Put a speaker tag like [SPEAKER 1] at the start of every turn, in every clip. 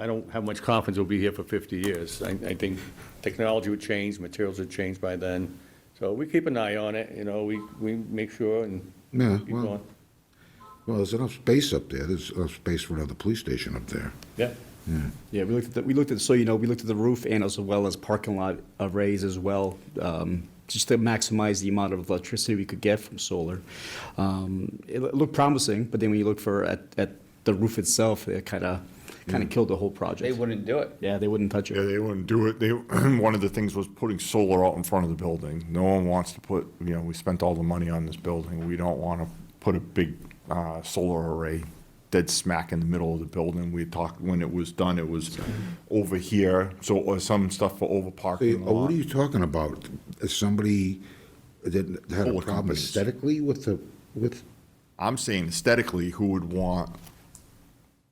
[SPEAKER 1] I don't have much confidence we'll be here for 50 years. I, I think technology would change, materials would change by then. So we keep an eye on it, you know, we, we make sure and
[SPEAKER 2] Yeah,
[SPEAKER 1] keep
[SPEAKER 2] well-
[SPEAKER 1] going.
[SPEAKER 2] Well, there's enough space up there. There's enough space for another police station up there.
[SPEAKER 1] Yeah.
[SPEAKER 3] Yeah, we looked at, the- we looked at, so you know, we looked at the roof and as well as parking lot arrays as well, um, just to maximize the amount of electricity we could get from solar. Um, It lo- looked promising, but then when you look for, at, at the roof itself, it kind of, kind of killed the whole
[SPEAKER 4] They
[SPEAKER 3] project.
[SPEAKER 4] wouldn't do it.
[SPEAKER 3] Yeah, they wouldn't touch
[SPEAKER 5] Yeah,
[SPEAKER 3] it.
[SPEAKER 5] they wouldn't do it. They, one of the things was putting solar out in front of the building. No one wants to put, you know, we spent all the money on this building. We don't want to put a big uh, solar array dead smack in the middle of the building. We talked, when it was done, it was over here, so it was some stuff for over
[SPEAKER 2] Hey,
[SPEAKER 5] parking
[SPEAKER 2] oh, What are
[SPEAKER 5] lot.
[SPEAKER 2] you talking about? Is somebody that had a
[SPEAKER 5] Solar
[SPEAKER 2] problem
[SPEAKER 5] companies.
[SPEAKER 2] aesthetically with the, with,
[SPEAKER 5] I'm saying aesthetically, who would want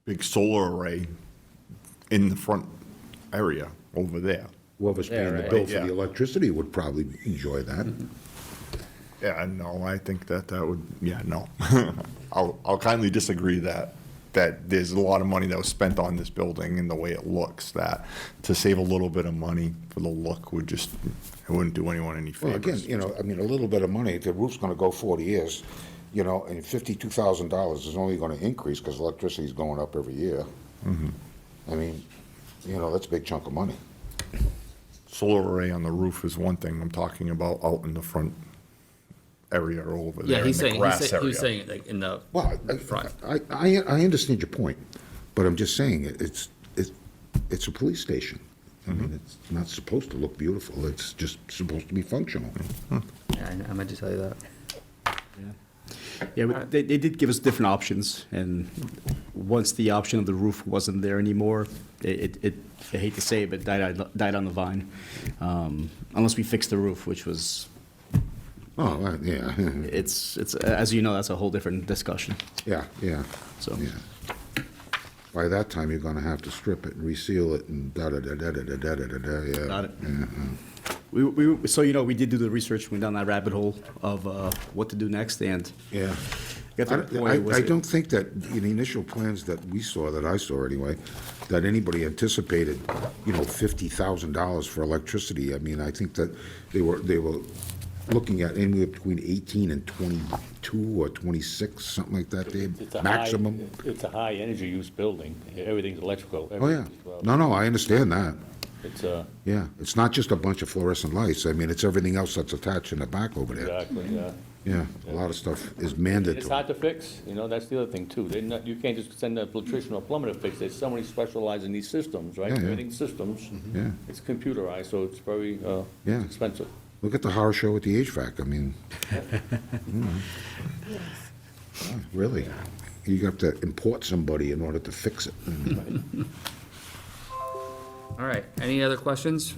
[SPEAKER 5] big solar array in the front area over there?
[SPEAKER 2] whoever's paying the
[SPEAKER 4] right.
[SPEAKER 2] bill for
[SPEAKER 5] Yeah.
[SPEAKER 2] the electricity would probably enjoy that.
[SPEAKER 5] Yeah, no, I think that that would, yeah, no. I'll, I'll kindly disagree that, that there's a lot of money that was spent on this building and the way it looks, that to save a little bit of money for the look would just, it wouldn't do anyone any
[SPEAKER 2] Well, again,
[SPEAKER 5] favors.
[SPEAKER 2] you know, I mean, a little bit of money, the roof's gonna go forty years, you know, and fifty-two thousand dollars is only gonna increase because electricity's going up every year.
[SPEAKER 5] Mm-hmm.
[SPEAKER 2] I mean, you know, that's a big chunk of money.
[SPEAKER 5] Solar array on the roof is one thing I'm talking about out in the front area or over
[SPEAKER 6] Yeah,
[SPEAKER 5] there in
[SPEAKER 6] he's
[SPEAKER 5] the
[SPEAKER 6] saying, he's
[SPEAKER 5] grass
[SPEAKER 6] saying, he's
[SPEAKER 5] area.
[SPEAKER 6] saying like in the
[SPEAKER 2] Well, I-
[SPEAKER 6] front.
[SPEAKER 2] I, I, I understand your point, but I'm just saying, it- it's, it's, it's a police station. I
[SPEAKER 3] Mm-hmm.
[SPEAKER 2] mean, it's not supposed to look beautiful, it's just supposed to be functional.
[SPEAKER 3] Mm-hmm.
[SPEAKER 6] Yeah, I- I meant to tell you that.
[SPEAKER 3] Yeah, but they, they did give us different options, and once the option of the roof wasn't there anymore, it, it- it, I hate to say it, but died, on- died on the vine. Um, Unless we fixed the roof, which was,
[SPEAKER 2] Oh, uh, yeah,
[SPEAKER 3] it's, it's, as you know, that's a whole different discussion.
[SPEAKER 2] yeah, yeah,
[SPEAKER 3] So-
[SPEAKER 2] yeah. By that time, you're gonna have to strip it and reseal it and da-da-da-da-da-da-da-da-da, yeah.
[SPEAKER 3] Got it.
[SPEAKER 2] Yeah, yeah.
[SPEAKER 3] We, we, so you know, we did do the research, went down that rabbit hole of uh, what to do next, and
[SPEAKER 2] Yeah.
[SPEAKER 3] got
[SPEAKER 2] I,
[SPEAKER 3] to the point.
[SPEAKER 2] I-
[SPEAKER 3] was
[SPEAKER 2] I
[SPEAKER 3] it-
[SPEAKER 2] don't think that, in the initial plans that we saw, that I saw anyway, that anybody anticipated, you know, fifty thousand dollars for electricity. I mean, I think that they were, they were looking at anywhere between eighteen and twenty-two or twenty-six, something like that,
[SPEAKER 1] It's
[SPEAKER 2] Dave,
[SPEAKER 1] a high-
[SPEAKER 2] maximum.
[SPEAKER 1] It's a high energy use building. Everything's electrical.
[SPEAKER 2] Oh, yeah.
[SPEAKER 1] everything's well.
[SPEAKER 2] No, no, I understand that.
[SPEAKER 1] It's, uh,
[SPEAKER 2] Yeah, it's not just a bunch of fluorescent lights. I mean, it's everything else that's attached in the back over there.
[SPEAKER 1] exactly, yeah.
[SPEAKER 2] Yeah, a lot of stuff is
[SPEAKER 1] It's
[SPEAKER 2] mandatory.
[SPEAKER 1] hard to fix, you know, that's the other thing too. They're not, you can't just send an electrician or plumber to fix it. Somebody specializes in these systems, right?
[SPEAKER 2] Yeah, yeah.
[SPEAKER 1] Everything's systems.
[SPEAKER 2] Yeah.
[SPEAKER 1] It's computerized, so it's very, uh,
[SPEAKER 2] Yeah.
[SPEAKER 1] expensive.
[SPEAKER 2] Look at the horror show with the HVAC, I mean. you know. Yeah, Really? You have to import somebody in order to fix it.
[SPEAKER 7] Mm-hmm.
[SPEAKER 6] All right, any other questions?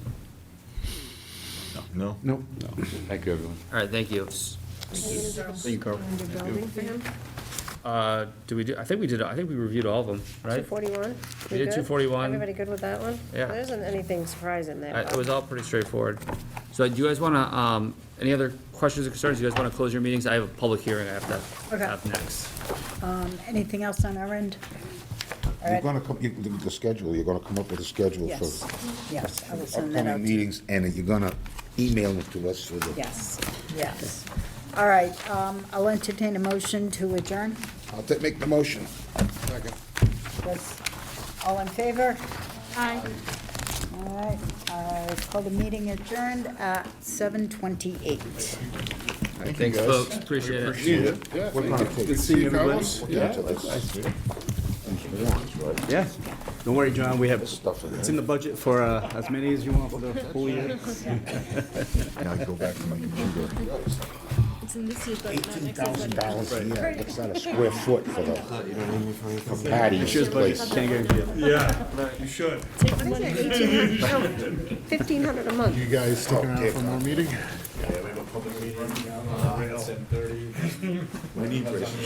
[SPEAKER 5] No?
[SPEAKER 2] No,
[SPEAKER 1] Thank you, everyone.
[SPEAKER 6] All right, thank you.
[SPEAKER 3] Thank you, Carl.
[SPEAKER 6] Uh, do we do, I think we did, I think we reviewed all of them, right?
[SPEAKER 8] 241?
[SPEAKER 6] We did 241.
[SPEAKER 8] Everybody good with that one?
[SPEAKER 6] Yeah.
[SPEAKER 8] There isn't anything surprising
[SPEAKER 6] Uh,
[SPEAKER 8] there.
[SPEAKER 6] It was all pretty straightforward. So do you guys want to, um, any other questions or concerns? Do you guys want to close your meetings? I have a public hearing I have to
[SPEAKER 7] Okay.
[SPEAKER 6] have next.
[SPEAKER 7] Anything else on our end?
[SPEAKER 2] you're gonna come, you, the the schedule, you're gonna come up with a schedule
[SPEAKER 7] Yes,
[SPEAKER 2] for
[SPEAKER 7] yes, I will send that out.
[SPEAKER 2] upcoming
[SPEAKER 7] to you.
[SPEAKER 2] meetings, and you're gonna email it to us for the,
[SPEAKER 7] Yes, yes. All right, um, I'll entertain a motion to adjourn.
[SPEAKER 2] I'll ta- make the motion. Second.
[SPEAKER 7] Yes. All in favor? Aye. All right, uh, call the meeting adjourned at seven twenty-eight.
[SPEAKER 6] Thanks, folks, appreciate it.
[SPEAKER 2] We're gonna take.
[SPEAKER 3] Good seeing everybody.
[SPEAKER 2] into this. Warrants, right?
[SPEAKER 3] Yeah, don't worry, John, we have,
[SPEAKER 2] Stuff in
[SPEAKER 3] it's in the budget for uh, as many as you want for the whole year.
[SPEAKER 5] Now I go back to my computer.
[SPEAKER 9] It's in this year's budget, not next year's
[SPEAKER 2] Thousand
[SPEAKER 9] budget.
[SPEAKER 2] dollars a year, what's that, a square foot for the, for Patty's
[SPEAKER 3] Cheers, buddy.
[SPEAKER 2] place?
[SPEAKER 3] Can't guarantee it.
[SPEAKER 9] Take the money.
[SPEAKER 8] Fifteen hundred a month.
[SPEAKER 2] You guys sticking around for more meeting?
[SPEAKER 10] public meeting, uh, at seven thirty.
[SPEAKER 2] My knee braces.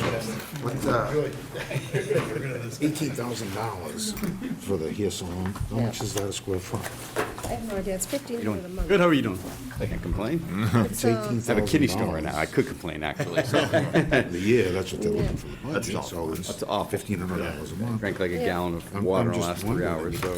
[SPEAKER 2] What, uh, eighteen thousand dollars for the hair salon, how much is that a square foot?
[SPEAKER 8] I have no idea, it's fifteen hundred a month.
[SPEAKER 3] Good, how are you doing? I can't complain.
[SPEAKER 8] It's, um,
[SPEAKER 3] I have a kidney stone right now. I could complain, actually. so
[SPEAKER 2] The year, that's what they're looking for, the budget,
[SPEAKER 3] all.
[SPEAKER 2] so it's
[SPEAKER 3] That's awful.
[SPEAKER 2] fifteen hundred dollars a month.
[SPEAKER 3] Drank like a
[SPEAKER 2] I'm-
[SPEAKER 3] gallon of
[SPEAKER 2] I'm
[SPEAKER 3] water in the
[SPEAKER 2] just
[SPEAKER 3] last three
[SPEAKER 2] wondering.
[SPEAKER 3] hours, so.